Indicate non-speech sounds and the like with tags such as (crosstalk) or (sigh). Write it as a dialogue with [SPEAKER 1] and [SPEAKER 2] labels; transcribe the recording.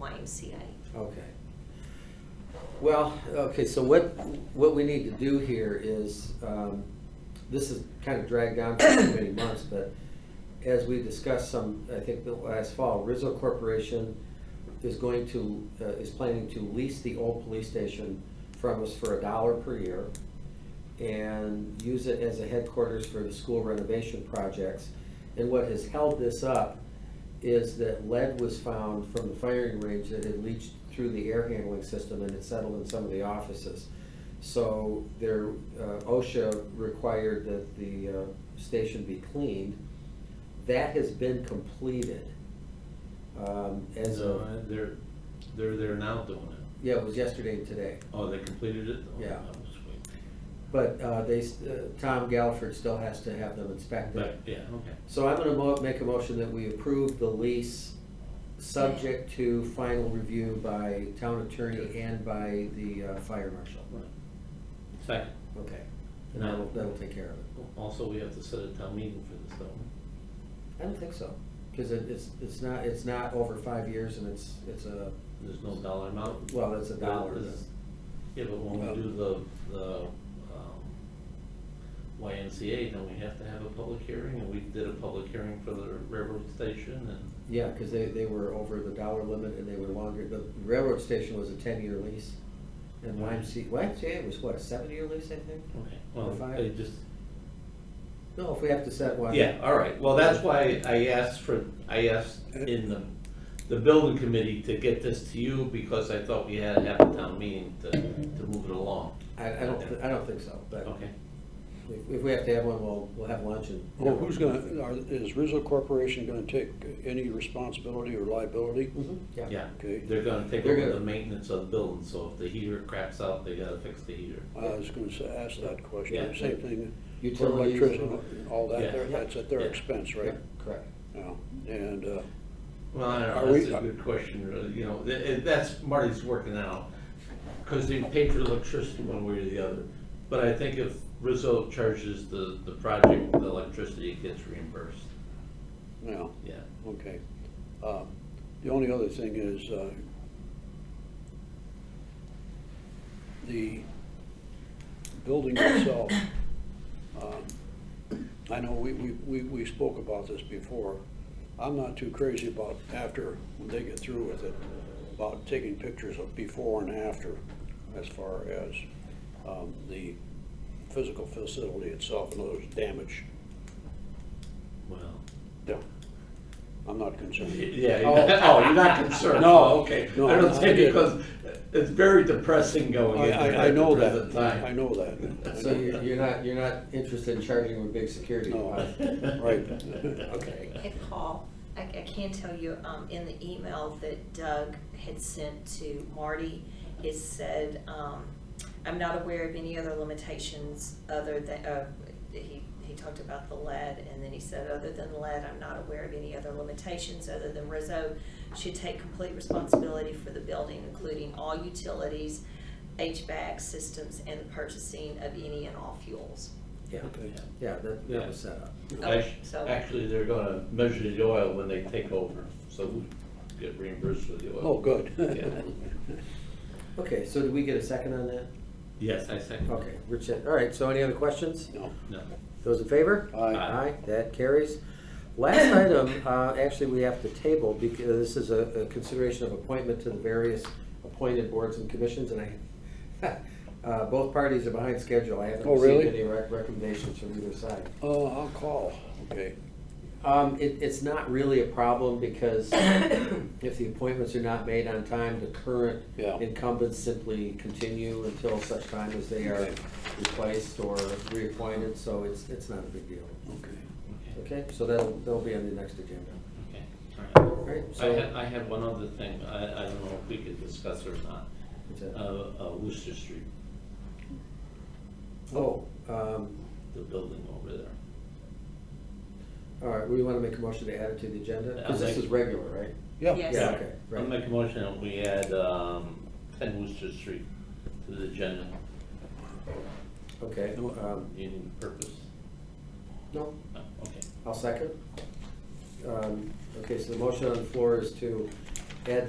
[SPEAKER 1] YMCA.
[SPEAKER 2] Okay. Well, okay, so what, what we need to do here is, um, this is kind of dragged on for too many months, but as we discussed some, I think the last fall, Rizzo Corporation is going to, uh, is planning to lease the old police station from us for a dollar per year and use it as a headquarters for the school renovation projects. And what has held this up is that lead was found from the firing range that had leached through the air handling system and it settled in some of the offices. So there, uh, OSHA required that the uh, station be cleaned. That has been completed. um, As
[SPEAKER 3] No,
[SPEAKER 2] of,
[SPEAKER 3] I- Uh, They're, they're there now doing it.
[SPEAKER 2] yeah, it was yesterday and today.
[SPEAKER 3] Oh, they completed it? Oh,
[SPEAKER 2] Yeah.
[SPEAKER 3] that was quick.
[SPEAKER 2] But uh, they, s- uh, Tom Gallagher still has to have them inspected.
[SPEAKER 3] But, yeah, okay.
[SPEAKER 2] So I'm gonna mo- make a motion that we approve the lease, subject to final review by town attorney and by the uh, fire marshal.
[SPEAKER 3] Right. Second,
[SPEAKER 2] Okay, and that'll, that'll take care of it.
[SPEAKER 3] also, we have to set a town meeting for this, though.
[SPEAKER 2] I don't think so, because it, it's, it's not, it's not over five years and it's, it's a,
[SPEAKER 3] There's no dollar amount.
[SPEAKER 2] well, it's a dollar.
[SPEAKER 3] This- Yeah, but when we do the, the um, YMCA, then we have to have a public hearing, and we did a public hearing for the railroad station, and
[SPEAKER 2] Yeah, because they, they were over the dollar limit and they were longer, the railroad station was a ten-year lease. And YMCA, YMCA was what, a seven-year lease, I think?
[SPEAKER 3] Okay, well,
[SPEAKER 2] If I-
[SPEAKER 3] I just,
[SPEAKER 2] No, if we have to set one.
[SPEAKER 3] yeah, all right, well, that's why I asked for, I asked in the, the building committee to get this to you, because I thought we had to have a town meeting to, to move it along.
[SPEAKER 2] I, I don't, thi- I don't think so, but
[SPEAKER 3] Okay,
[SPEAKER 2] if, if we have to have one, we'll, we'll have lunch and.
[SPEAKER 4] Well, who's gonna, are- is Rizzo Corporation gonna take any responsibility or liability?
[SPEAKER 2] Mhm, yeah.
[SPEAKER 3] yeah,
[SPEAKER 4] Okay.
[SPEAKER 3] they're gonna take
[SPEAKER 2] They're
[SPEAKER 3] over
[SPEAKER 2] gonna-
[SPEAKER 3] the maintenance of the building, so if the heater craps out, they gotta fix the heater.
[SPEAKER 4] I was gonna say- ask that question,
[SPEAKER 3] Yeah.
[SPEAKER 4] same thing, for
[SPEAKER 2] Utilities.
[SPEAKER 4] electricity and all
[SPEAKER 3] Yeah.
[SPEAKER 4] that, They're- that's at their
[SPEAKER 3] Yeah.
[SPEAKER 4] expense, right?
[SPEAKER 2] Right, correct.
[SPEAKER 4] Yeah. And, uh,
[SPEAKER 3] Well, I don't
[SPEAKER 4] Are
[SPEAKER 3] know,
[SPEAKER 4] we-
[SPEAKER 3] that's a good question, really, you know, th- eh, that's, Marty's working out, because they pay for electricity one way or the other. But I think if Rizzo charges the, the project, the electricity gets reimbursed,
[SPEAKER 4] yeah,
[SPEAKER 3] yeah.
[SPEAKER 4] okay. Uh, The only other thing is, uh, the building itself, (coughs) um, I know we, we, we we spoke about this before. I'm not too crazy about after they get through with it, about taking pictures of before and after as far as um, the physical facility itself, in other words, damage.
[SPEAKER 3] Well,
[SPEAKER 4] Yeah. I'm not
[SPEAKER 3] y-
[SPEAKER 4] concerned.
[SPEAKER 3] yeah,
[SPEAKER 2] Oh.
[SPEAKER 3] (laughs) oh, you're not concerned?
[SPEAKER 4] No,
[SPEAKER 3] Okay, I
[SPEAKER 4] no,
[SPEAKER 3] don't
[SPEAKER 4] I
[SPEAKER 3] think,
[SPEAKER 4] did.
[SPEAKER 3] because it's very depressing going
[SPEAKER 4] I,
[SPEAKER 3] into
[SPEAKER 4] I, I
[SPEAKER 3] at
[SPEAKER 4] know
[SPEAKER 3] the
[SPEAKER 4] that,
[SPEAKER 3] present time.
[SPEAKER 4] I know that.
[SPEAKER 2] So you're, you're not, you're not interested in charging them a big security
[SPEAKER 4] No.
[SPEAKER 2] deposit?
[SPEAKER 3] (laughs)
[SPEAKER 4] Right.
[SPEAKER 3] Okay.
[SPEAKER 1] And Paul, I, I can tell you, um, in the email that Doug had sent to Marty, it said, um, I'm not aware of any other limitations other than, uh, he, he talked about the lead, and then he said, other than lead, I'm not aware of any other limitations other than Rizzo should take complete responsibility for the building, including all utilities, HVAC systems, and the purchasing of any and all fuels.
[SPEAKER 2] Yeah,
[SPEAKER 4] Okay.
[SPEAKER 2] yeah, that, that was set up.
[SPEAKER 3] Act-
[SPEAKER 1] so-
[SPEAKER 3] Actually, they're gonna measure the oil when they take over, so we get reimbursed for the oil.
[SPEAKER 4] Oh, good. (laughs)
[SPEAKER 3] Yeah.
[SPEAKER 2] Okay, so did we get a second on that?
[SPEAKER 3] Yes, I second. it.
[SPEAKER 2] Okay, Rich, all right, so any other questions?
[SPEAKER 4] No.
[SPEAKER 3] No.
[SPEAKER 2] Those in favor?
[SPEAKER 4] Aye.
[SPEAKER 3] Aye.
[SPEAKER 2] Aye, that carries.
[SPEAKER 4] (coughs)
[SPEAKER 2] Last item, uh, actually, we have to table because this is a a consideration of appointment to the various appointed boards and commissions, and I, (laughs) uh, both parties are behind schedule. I haven't
[SPEAKER 4] Oh,
[SPEAKER 2] received
[SPEAKER 4] really?
[SPEAKER 2] any rec- recommendations from either side.
[SPEAKER 4] Uh, I'll call, okay.
[SPEAKER 2] Um, It, it's not really a problem
[SPEAKER 4] (coughs)
[SPEAKER 2] because if the appointments are not made on time, the current
[SPEAKER 4] Yeah.
[SPEAKER 2] incumbents simply continue until such time as they are
[SPEAKER 4] Okay.
[SPEAKER 2] replaced or reappointed, so it's, it's not a big deal.
[SPEAKER 4] Okay.
[SPEAKER 3] Okay,
[SPEAKER 2] Okay, so that'll, that'll be on the next agenda.
[SPEAKER 3] okay, all right.
[SPEAKER 2] All right,
[SPEAKER 3] I
[SPEAKER 2] so.
[SPEAKER 3] had, uh, I had one other thing, I, I don't know if we could discuss it or not,
[SPEAKER 2] What's that?
[SPEAKER 3] uh, uh, Worcester Street,
[SPEAKER 2] Oh, um,
[SPEAKER 3] the building over there.
[SPEAKER 2] all right, we want to make a motion to add it to the agenda? Because
[SPEAKER 3] I'll
[SPEAKER 2] this
[SPEAKER 3] make-
[SPEAKER 2] is regular, right?
[SPEAKER 1] Yes.
[SPEAKER 4] Yeah,
[SPEAKER 2] Yeah, okay,
[SPEAKER 3] I'll
[SPEAKER 2] right.
[SPEAKER 3] make a motion that we add, um, ten Worcester Street to the agenda,
[SPEAKER 2] Okay, um,
[SPEAKER 3] union purpose,
[SPEAKER 2] no,
[SPEAKER 3] no, okay.
[SPEAKER 2] I'll second. Um, Okay, so the motion on the floor is to add